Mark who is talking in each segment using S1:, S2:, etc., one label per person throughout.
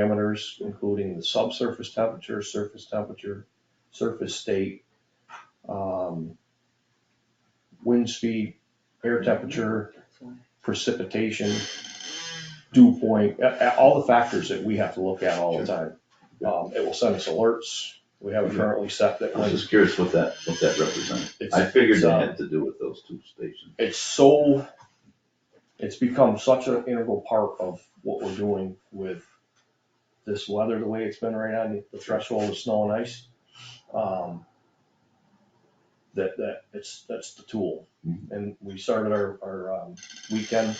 S1: parameters, including the subsurface temperature, surface temperature, surface state, um, wind speed, air temperature, precipitation, dew point, a- a- all the factors that we have to look at all the time. Um, it will send us alerts. We have it currently set that
S2: I was
S1: when
S2: just curious what that, what that represented.
S1: it's.
S2: I figured
S1: it's,
S2: it
S1: um,
S2: had to do with those two stations.
S1: it's so, it's become such an integral part of what we're doing with this weather, the way it's been right on the threshold of snow and ice. um, That, that, it's, that's the tool.
S2: Mhm.
S1: And we started our, our um, weekend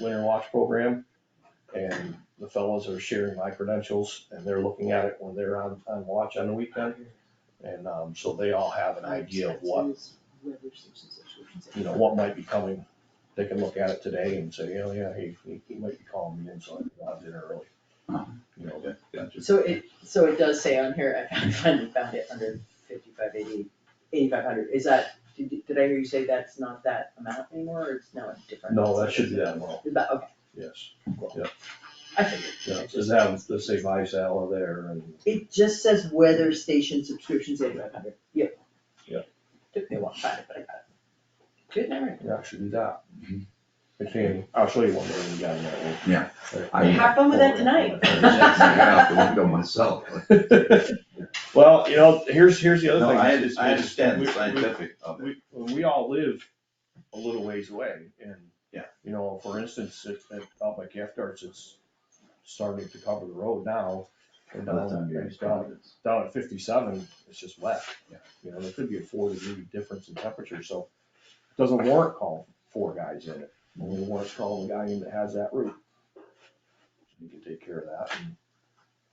S1: winter watch program. And the fellows are sharing my credentials and they're looking at it when they're on, on watch on the weekend. And um, so they all have an idea of what you know, what might be coming. They can look at it today and say, oh yeah, he, he- he might be calling me in, so I can go out to dinner early. You know,
S2: Okay, gotcha.
S3: So it, so it does say on here, I finally found it, under fifty-five eighty, eighty-five hundred, is that, did, did I hear you say that's not that amount anymore, or it's now a different?
S1: no, that should be that amount,
S3: Is that- okay,
S1: yes.
S3: I figured,
S1: Yeah, just have, let's say my salad there and,
S3: it just says weather station subscriptions eighty-five hundred, yep.
S1: Yeah.
S3: Took me a while to find it, but I got it. Good memory.
S1: yeah, it should be that.
S2: Mhm.
S1: It can, I'll show you one there we got in that one.
S2: Yeah.
S1: Right.
S2: I-
S3: Have fun with that tonight.
S2: I was just looking out the window myself.
S1: Well, you know, here's, here's the other
S2: No,
S1: thing.
S2: I,
S1: is-
S2: I
S1: is
S2: understand
S1: we-
S2: the
S1: we-
S2: scientific of it.
S1: we, when we all live a little ways away and.
S2: Yeah.
S1: You know, for instance, at, at, out by Gift Arts, it's starting to cover the road now. And
S2: By the
S1: down,
S2: time you're in
S1: and down,
S2: Providence.
S1: down at fifty-seven, it's just wet.
S2: Yeah.
S1: You know, there could be a four degree difference in temperature, so it doesn't warrant calling four guys in it. Only warrants calling the guy in that has that route. You can take care of that.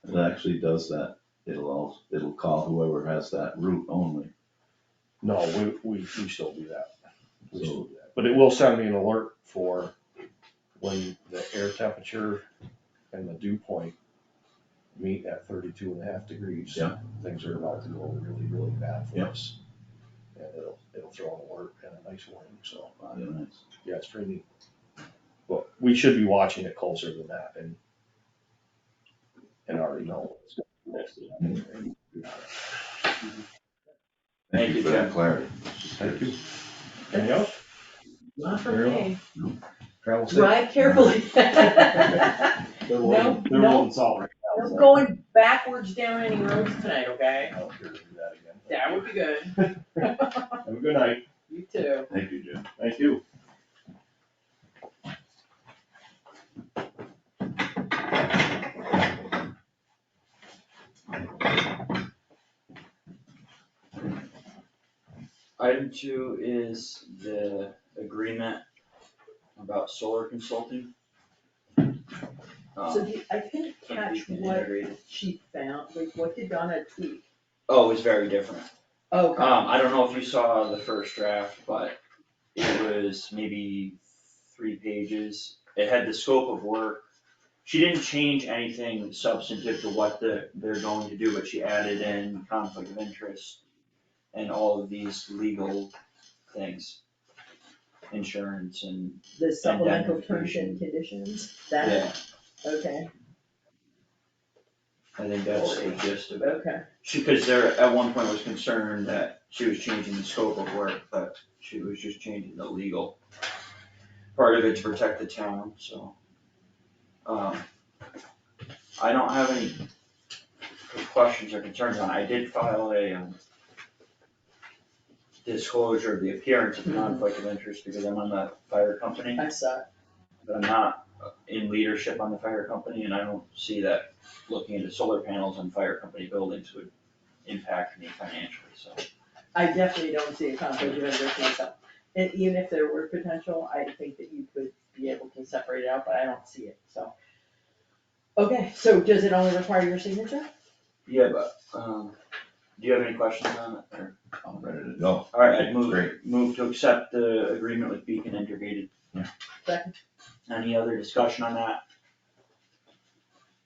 S1: and-
S2: It actually does that. It'll all, it'll call whoever has that route only.
S1: No, we, we, we still do that. We still
S2: So,
S1: do that, but it will send me an alert for when the air temperature and the dew point meet at thirty-two and a half degrees.
S2: Yeah.
S1: Things are about to go really, really bad for
S2: Yeah.
S1: us. And it'll, it'll throw an alert and a nice warning, so,
S2: I don't know.
S1: yeah, it's pretty neat. But we should be watching it closer than that and and already know. what's going on.
S2: Thank you for that clarity.
S1: Thank you. Anything else?
S3: Not
S1: for me. Travel safe.
S3: Drive carefully.
S4: They're
S3: No,
S4: rolling, they're
S3: no.
S4: rolling salt right now.
S3: I'm
S4: so.
S3: going backwards down any roads tonight, okay?
S1: I don't care to do that again.
S3: That would be good,
S1: Have a good night.
S3: you too.
S2: Thank you, Jim.
S1: Thank you.
S5: Item two is the agreement about solar consulting. Um,
S3: So do- I couldn't
S5: something we
S3: catch
S5: can
S3: what
S5: integrate.
S3: she found, like what did Donna Oh, tweet?
S5: Oh, it's very different.
S3: Okay,
S5: Um, I don't know if you saw the first draft, but it was maybe three pages. It had the scope of work. She didn't change anything substantive to what the, they're going to do, but she added in conflict of interest and all of these legal things. Insurance and,
S3: the supplemental terms and
S5: indemnification.
S3: conditions, that,
S5: yeah,
S3: okay,
S5: I think that's the gist of it.
S3: okay,
S5: She, cause there, at one point was concerned that she was changing the scope of work, but she was just changing the legal part of it to protect the town, so. Um, I don't have any questions or concerns on, it. I did file a, um, disclosure of the appearance of conflict of interest because I'm on the fire company,
S3: I saw it.
S5: but I'm not in leadership on the fire company, and I don't see that looking into solar panels on fire company buildings would impact me financially, so.
S3: I definitely don't see a conflict of interest myself. And even if there were potential, I think that you could be able to separate it out, but I don't see it, so. Okay, so does it only require your signature?
S5: Yeah, but, um, do you have any questions on it, or,
S2: I'm ready to go.
S5: alright, I'd
S2: Great.
S5: move, move to accept the agreement with Beacon Integrated.
S3: Second.
S5: Any other discussion on that,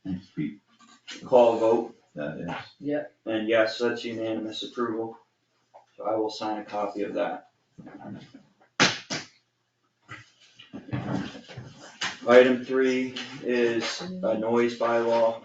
S2: Thanks, Pete.
S5: call a vote,
S2: That is.
S5: and yes, that's unanimous approval, so I will sign a copy of that. Item three is a noise bylaw.